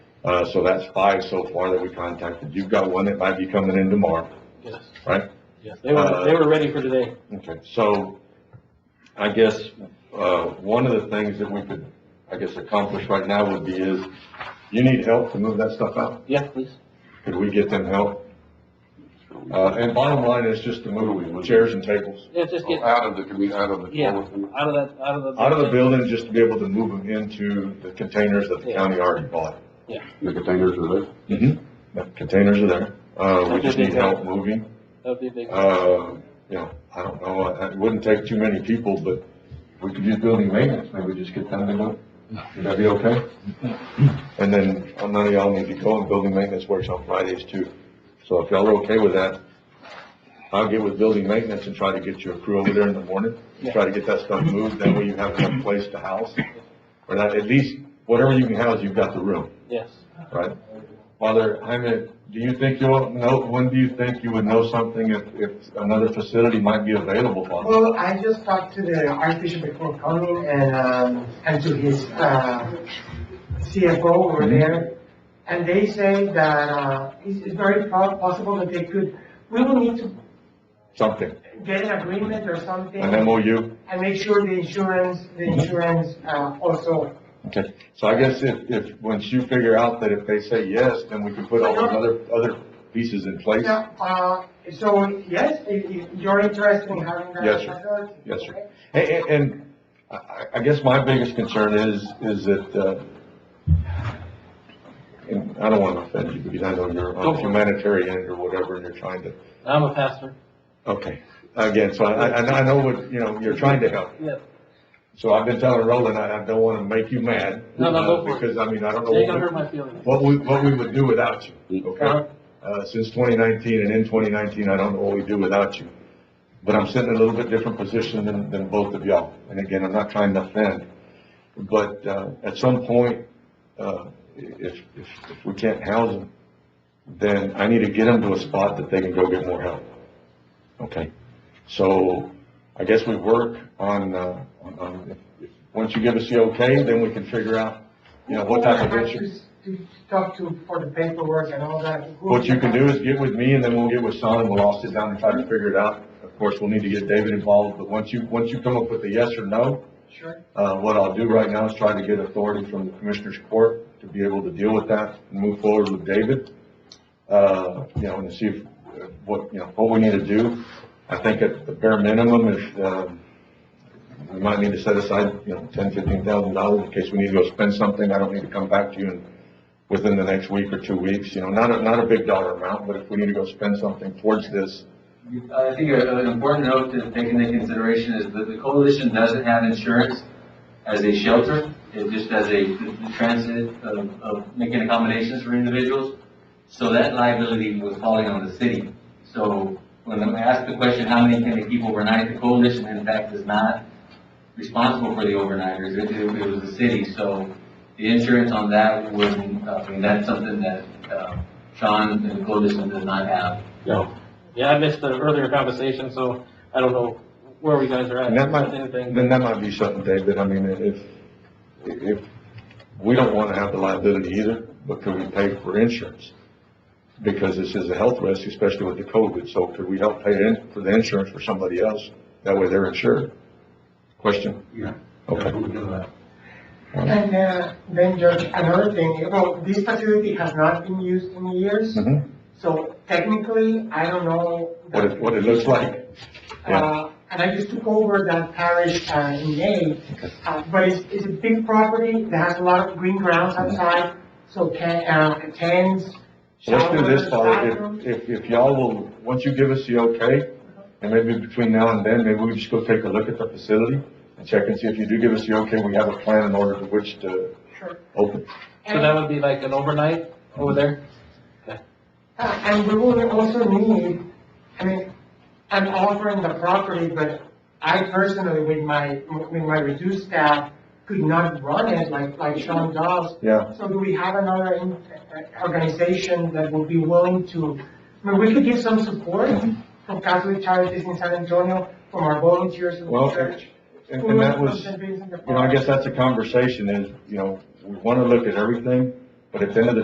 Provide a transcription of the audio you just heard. Uh, so that's five so far that we contacted. You've got one that might be coming in tomorrow. Yes. Right. Yes, they were, they were ready for today. Okay, so I guess, uh, one of the things that we could, I guess, accomplish right now would be is, you need help to move that stuff out? Yeah, please. Could we get them help? Uh, and bottom line is just to move chairs and tables Yeah, just get Oh, Out of the, commu- out of the. Yeah. out of that, out of the. out of the building, just to be able to move them into the containers that the county already bought. The containers are there. Mm-hmm. The containers are there. Uh, we just need help moving. That'd be a big, Uh, you know, I don't know, uh, it wouldn't take too many people, but we could use building maintenance, maybe just get them to do it. Would that be okay? And then, uh, none of y'all need to go, and building maintenance works on Fridays too. So if y'all are okay with that, I'll get with building maintenance and try to get your crew over there in the morning, Yeah. try to get that stuff moved, that way you have enough place to house. Or that, at least, whatever you can house, you've got the room yes. right? Father Jaime, do you think you'll know, when do you think you would know something if, if another facility might be available, Father? Well, I just talked to the Archbishop before coming and, um, and to his, uh, CFO Mm-hmm. over there. And they say that, uh, it's, it's very po- possible that they could, we will need to Something, get an agreement or something an MOU? and make sure the insurance, the Mm-hmm. insurance, uh, also. Okay, so I guess if, if, once you figure out that if they say yes, then we can put all those other, other pieces in place? Yeah, uh, so, yes, if, if you're interested in having that. Yes, sir. facility, Yes, sir. okay? And, and- and I- I, I guess my biggest concern is, is that, uh, and I don't want to offend you because I know you're Go on for it. humanitarian or whatever and you're trying to, I'm a pastor. okay. Again, so I, I, I know what, you know, you're trying to help. Yeah, So I've been telling Roland, I, I don't wanna make you mad. No, no, go for it. uh, Because, I mean, I don't know they gonna hurt what, my feelings. what we, what we would do without you, Uh-huh. okay? Uh, since twenty nineteen and in twenty nineteen, I don't know what we do without you. But I'm sitting in a little bit different position than, than both of y'all. And again, I'm not trying to offend. But, uh, at some point, uh, if, if, if we can't house them, then I need to get them to a spot that they can go get more help. Okay? So I guess we work on, uh, on- on, if- if- once you give us the okay, then we can figure out, you know, what type of Who I have to insurance. s- To talk to for the paperwork and all that. Who What you can I- do is get with me and then we'll get with Son and we'll all sit down and try to figure it out. Of course, we'll need to get David involved, but once you, once you come up with a yes or no, Sure. uh, what I'll do right now is try to get authority from the Commissioners Court to be able to deal with that and move forward with David. Uh, you know, and see if, uh, what, you know, what we need to do. I think at the bare minimum, if, um, we might need to set aside, you know, ten, fifteen thousand dollars in case we need to go spend something. I don't need to come back to you in- within the next week or two weeks, you know, not a, not a big dollar amount, but if we need to go spend something towards this, I think a- an important note to take into consideration is that the coalition doesn't have insurance as a shelter, it just as a the transit of, of making accommodations for individuals. So that liability was falling on the city. So when I asked the question, how many can they keep overnight, the coalition in fact is not responsible for the overnighters, it, it it was the city. So the insurance on that wouldn't, uh, I mean, that's something that, uh, Sean and the coalition does not have. No. Yeah, I missed the earlier conversation, so I don't know where we guys are at. And that might, with anything. then that might be something, David, I mean, if, if, we don't wanna have the liability either, but could we pay for insurance? Because this is a health risk, especially with the COVID, so could we help pay in for the insurance for somebody else? That way they're insured. Question? Yeah. Okay. And uh, then Judge, another thing, well, this facility has not been used in years, Mhm. so technically, I don't know. What it, what it looks like, yeah. Uh, And I just took over that parish uh, in May, uh, but it's, it's a big property that has a lot of green grounds Mm-hmm. outside, so can, uh, tents, Let's do this, showers, Father, bathrooms. if, if, if y'all will, once you give us the okay, and maybe between now and then, maybe we just go take a look at the facility and check and see if you do give us the okay, we have a plan in order to which to Sure. open. So that would be like an overnight over there? Uh, And we will also need, I mean, I'm offering the property, but I personally, with my, with my reduced staff, could not run it like, like Sean does. Yeah. So do we have another in- uh, organization that would be willing to, I mean, we could give some support from Catholic Charities in San Antonio, from our volunteers in Well, the church. And, and that who was, are you contributing to the know, I park. guess that's a conversation is, you know, we want to look at everything, but at the end of the